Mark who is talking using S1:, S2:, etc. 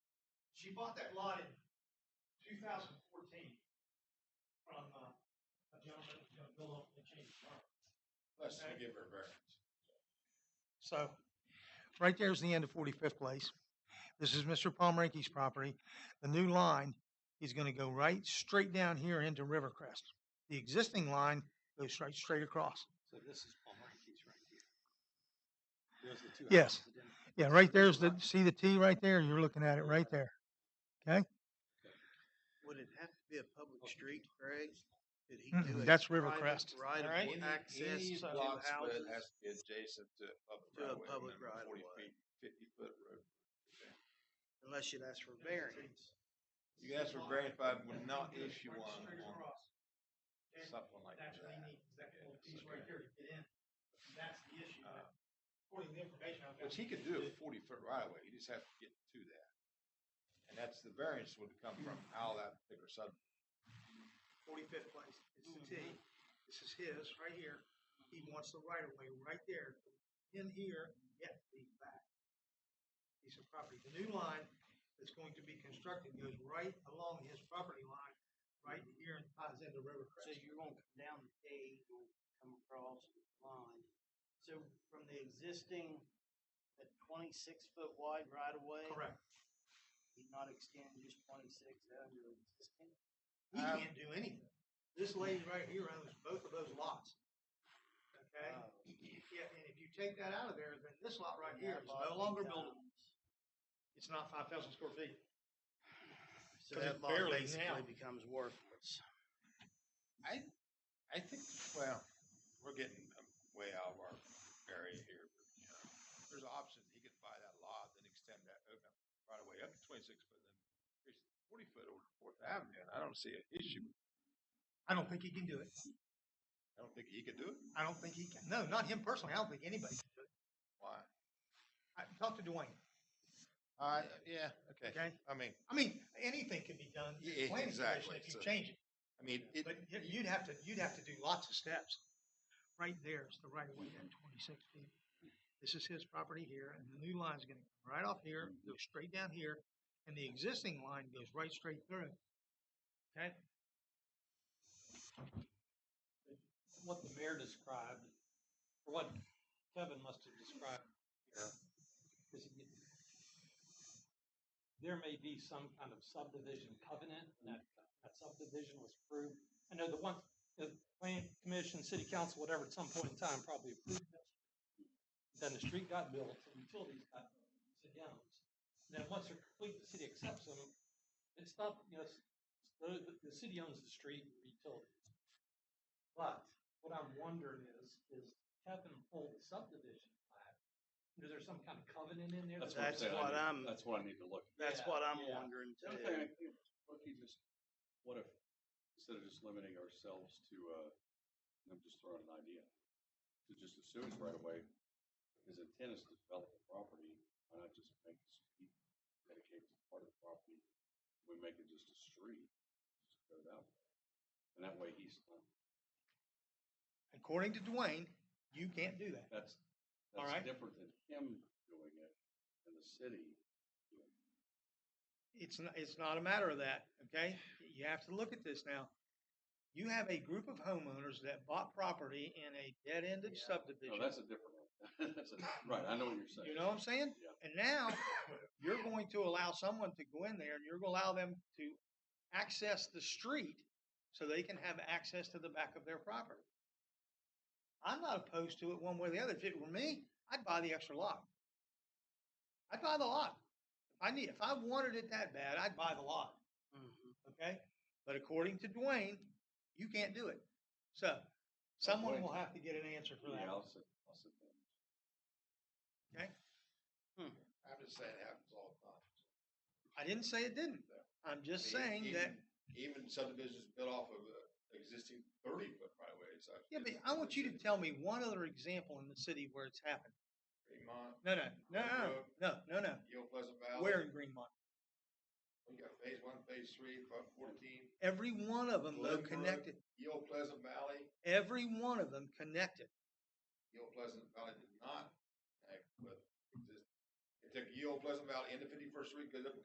S1: She bought that lot in two thousand fourteen from, uh, a gentleman who's gonna build up the change tomorrow.
S2: Let's not give her a variance.
S1: So, right there's the end of Forty-Fifth Place. This is Mr. Palmerinkey's property. The new line is gonna go right straight down here into Rivercrest. The existing line goes straight, straight across.
S3: So this is Palmer's right here. There's the two
S1: Yes.
S3: houses identical.
S1: Yeah, right there's the, see the T right there? You're looking at it right there.
S4: Would it have to be a public street, Greg? Could he
S1: Mm-mm,
S4: do it?
S1: that's
S4: private
S1: Rivercrest,
S4: Right
S1: all right?
S4: of
S2: Any-
S4: access
S2: any
S4: to
S5: uh,
S2: lot split
S4: houses.
S2: Has to be adjacent to a public
S4: To a
S2: right of way,
S4: public
S2: minimum
S4: right of
S2: 40
S4: way.
S2: feet, Fifty foot road.
S4: Unless you'd ask for variance.
S2: You can ask for variance, but I would not issue one on something like
S1: That's what they
S2: that.
S1: need, is that little piece right there to get in. That's the issue. but According to the information I've got.
S2: Uh, Which he could do a forty foot right of way, he just has to get to that. And that's, the variance would come from how that particular sub,
S1: Forty-fifth place, it's the T.
S5: Mm-hmm.
S1: This is his, right here. He wants the right of way, right there, in here, yet the back. Piece of property. The new line that's going to be constructed goes right along his property line, right here and ties into River
S5: So
S1: Crest.
S5: you're gonna come down the K, you'll come across the line. So from the existing, the twenty-six foot wide right of way,
S1: Correct.
S5: you not extend just twenty-six out of your existing?
S1: He
S2: Um,
S1: can't do anything. This lady right here owns both of those lots. Okay?
S5: Uh,
S1: Yeah, and if you take that out of there, then this lot right
S5: and
S1: here
S5: that
S1: is
S5: lot
S1: no longer buildable.
S5: becomes-
S1: It's not five thousand square feet.
S5: So
S1: 'Cause
S5: that
S1: it's
S5: lot
S1: barely
S5: basically
S1: now.
S5: becomes worthless.
S2: I think, well, we're getting um, way out of our area here. but, you know, There's an option, he could buy that lot, then extend that, open up right away up to twenty-six foot, then increase it to forty foot over to Fourth Avenue, and I don't see an issue.
S1: I don't think he can do it.
S2: I don't think he could do it.
S1: I don't think he can. No, not him personally. I don't think anybody. Can do it.
S2: Why?
S1: I, talk to Dwayne.
S2: Uh, yeah, okay.
S1: Okay.
S2: I mean,
S1: I mean, anything can be done. to the
S2: Yeah,
S1: planning commission
S2: exactly.
S1: If you
S2: So-
S1: change it,
S2: I mean, it,
S1: but y- you'd have to you'd have to do lots of steps. Right there is the right of way at 26 feet. This is his property here, and the new line is going to come right off here, go straight down here, and the existing line goes right straight through. Okay.
S3: What the mayor described, or what Kevin must have described.
S2: Yeah.
S3: is it- There may be some kind of subdivision covenant, and that, that subdivision was approved. I know the one, the planning commission, city council, whatever, at some point in time probably approved this. Then the street got built, the utilities got sit down. Then once they're complete, the city accepts them. It's not, you know, it's- the, the- the city owns the street and the utilities. But what I'm wondering is, is Kevin pulled the subdivision plat. Is there some kind of covenant in there?
S6: That's
S3: that-
S4: That's
S6: what I'm saying.
S4: what
S6: I
S4: I'm-
S6: need, that's what I need to look.
S4: That's
S3: Yeah,
S4: what I'm
S3: yeah.
S4: wondering
S6: at.
S4: too.
S6: What if you just, what if, instead of just limiting ourselves to, uh, I'm just throwing an idea, to just assume right away, his intent is to develop the property, why not just make the street dedicated to part of the property? We make it just a street, just go that way. And that way he's, not-
S1: According to Dwayne, you can't do that.
S6: that's,
S1: All right.
S6: that's different than him doing it and the city. doing it.
S1: It's not, it's not a matter of that, okay? You have to look at this now. You have a group of homeowners that bought property in a dead-ended
S3: Yeah.
S6: No,
S1: subdivision.
S6: that's a different one. That's a, right, I know what you're saying.
S1: You know what I'm saying?
S6: Yeah.
S1: And now you're going to allow someone to go in there and you're going to allow them to access the street so they can have access to the back of their property. I'm not opposed to it one way or the other. If it were me, I'd buy the extra lot. I'd buy the lot. If I need, if I wanted it that bad, I'd buy the lot.
S4: Mm-hmm.
S5: Mhm.
S1: Okay? But according to Dwayne, you can't do it. So someone will have to get an answer for that.
S6: Yeah, I'll sit, I'll sit down.
S2: I'm just saying it happens all the time.
S1: I didn't say it didn't. I'm just
S2: I mean,
S1: saying that
S2: Even even subdivisions built off of uh, existing thirty foot right of ways. I've-
S1: Yeah, but I want you to tell me one other example in the city where it's happened.
S2: Fremont,
S1: No, no, no, no, no, no, no.
S2: Yale Pleasant Valley.
S1: Where in Greenmont?
S2: We got phase one, phase three, phase fourteen,
S1: Every one of them though
S2: Glenbrook.
S1: connected.
S2: Yale Pleasant Valley,
S1: Every one of them connected.
S2: Yale Pleasant Valley uh, did not act with exist. It took Yale Pleasant Valley into Fifty First Street, goes up